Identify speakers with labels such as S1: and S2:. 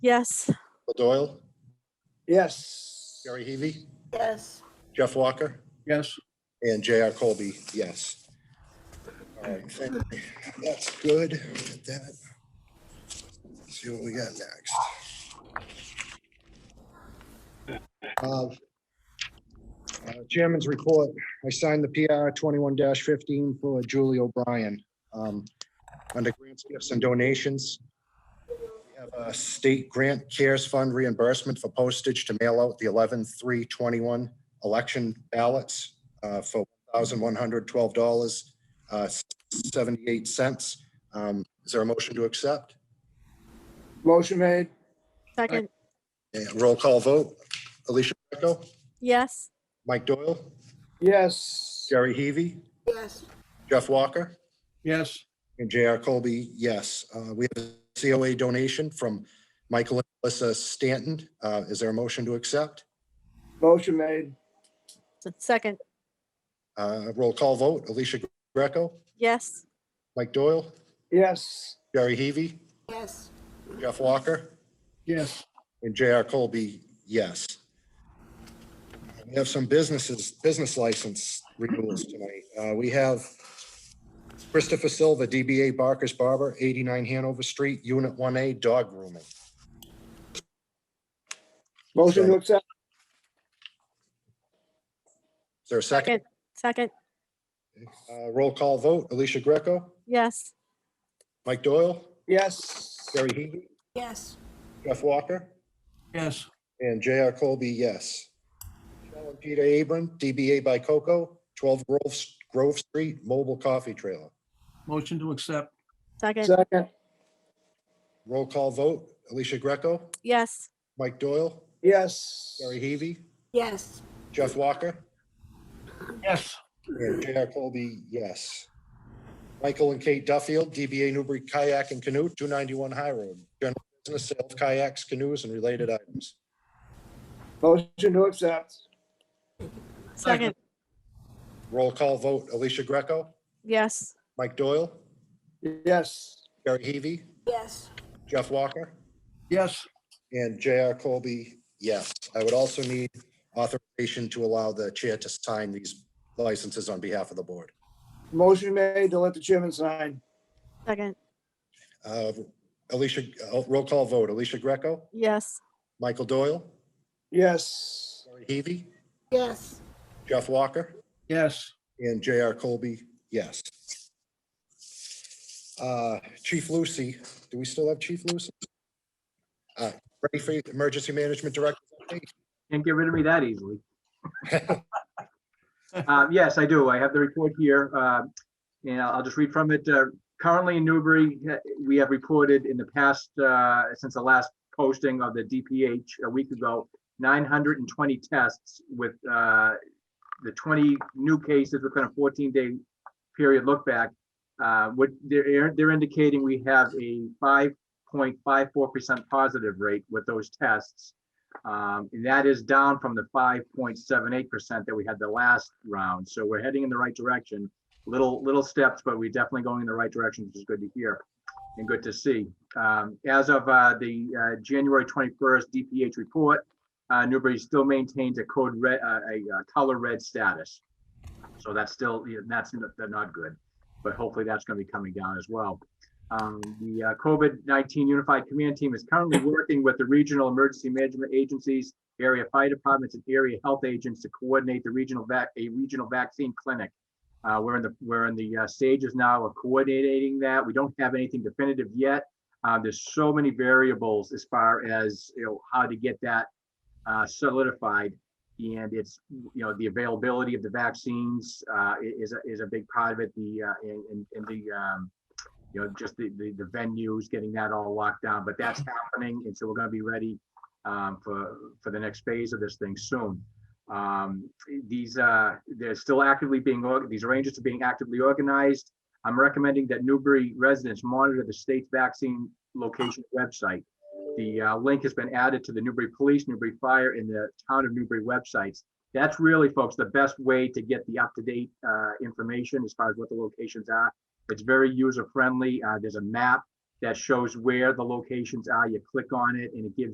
S1: Yes.
S2: Bill Doyle,
S3: Yes.
S2: Jerry Heavy,
S4: Yes.
S2: Jeff Walker,
S3: Yes.
S2: and J.R. Colby, yes. All right, thank you. that's good. Get that. See what we got next. Uh, uh, Chairman's report, I signed the PR twenty-one fifteen for Julie O'Brien. um, Under grants, gifts, and donations. We have a state grant cares fund reimbursement for postage to mail out the 11 3 21 election ballots uh, for $1,112.78. uh, Um, Is there a motion to accept?
S3: Motion made.
S1: Second.
S2: And Roll call vote. Alicia Greco,
S1: Yes.
S2: Mike Doyle,
S3: Yes.
S2: Jerry Heavy,
S4: Yes.
S2: Jeff Walker,
S3: Yes.
S2: and J.R. Colby, yes. Uh, We have a COA donation from Michael and Melissa Stanton. Uh, Is there a motion to accept?
S3: Motion made.
S1: Second.
S2: Uh, Roll call vote. Alicia Greco,
S1: Yes.
S2: Mike Doyle,
S3: Yes.
S2: Jerry Heavy,
S4: Yes.
S2: Jeff Walker,
S3: Yes.
S2: And J.R. Colby, yes. We have some businesses, business license renewals tonight. Uh, We have Christopher Silva, DBA Barker's Barber, 89 Hanover Street, Unit 1A, dog grooming.
S3: Motion to accept.
S2: Is there a second?
S1: Second.
S2: Uh, Roll call vote, Alicia Greco,
S1: Yes.
S2: Mike Doyle,
S3: Yes.
S2: Gary Heavy,
S4: Yes.
S2: Jeff Walker,
S3: Yes.
S2: and J.R. Colby, yes. Michelle and Peter Abram, DBA by Coco, 12 Grove, Grove Street, Mobile Coffee Trailer.
S5: Motion to accept,
S1: Second.
S3: Second.
S2: Roll call vote, Alicia Greco,
S1: Yes.
S2: Mike Doyle,
S3: Yes.
S2: Gary Heavy,
S4: Yes.
S2: Jeff Walker,
S5: yes.
S2: and J.R. Colby, yes. Michael and Kate Duffield, DBA Newbury Kayak and Canoe, 291 High Road, general business sale of kayaks, canoes, and related items.
S3: Motion to accept.
S1: Second.
S2: Roll call vote, Alicia Greco,
S1: Yes.
S2: Mike Doyle,
S3: Yes.
S2: Gary Heavy,
S4: Yes.
S2: Jeff Walker,
S5: Yes,
S2: and J.R. Colby, yes. I would also need authorization to allow the chair to sign these licenses on behalf of the board.
S3: Motion made to let the chairman sign.
S1: Second.
S2: Uh, Alicia, uh, roll call vote. Alicia Greco,
S1: Yes.
S2: Michael Doyle,
S3: Yes.
S2: Lori Heavy,
S4: Yes.
S2: Jeff Walker,
S5: yes.
S2: and J.R. Colby, yes. Uh, Chief Lucy, do we still have Chief Lucy? Uh, Ready for Emergency Management Director?
S6: Can't get rid of me that easily. Um, Yes, I do. I have the report here, uh, and I'll I'll just read from it. Uh, Currently in Newbury, uh, we have reported in the past, uh, since the last posting of the DPH a week ago, 920 tests with uh, the 20 new cases within a 14-day period look back. Uh, What they're they're indicating, we have a 5.54% positive rate with those tests. Um, and that is down from the five point seven eight percent that we had the last round. So we're heading in the right direction. Little, little steps, but we're definitely going in the right direction, which is good to hear and good to see. Um, as of, uh, the, uh, January twenty-first DPH report, uh, Newbury still maintains a code red, uh, a, uh color red status. So that's still, yeah, that's, n- that's not good, but hopefully that's gonna be coming down as well. Um, The uh, COVID-19 Unified Command Team is currently working with the regional emergency management agencies, area fire departments, and area health agents to coordinate the regional vac, a regional vaccine clinic. Uh, We're in the, we're in the uh, stages now of coordinating that. We don't have anything definitive yet. Uh, There's so many variables as far as, you know, how to get that uh, solidified. And it's, you know, the availability of the vaccines uh, i- is, a- is a big part of it, the, uh, and, and- and the, um, you know, just the, the, the venues, getting that all locked down, but that's happening, and so we're gonna be ready um, for, for the next phase of this thing soon. Um, these, uh, they're still actively being, org- these arrangements are being actively organized. I'm recommending that Newbury residents monitor the state's vaccine location website. The, uh, link has been added to the Newbury Police, Newbury Fire, and the Town of Newbury websites. That's really, folks, the best way to get the up-to-date, uh, information as far as what the locations are. It's very user friendly. Uh, there's a map that shows where the locations are. You click on it and it gives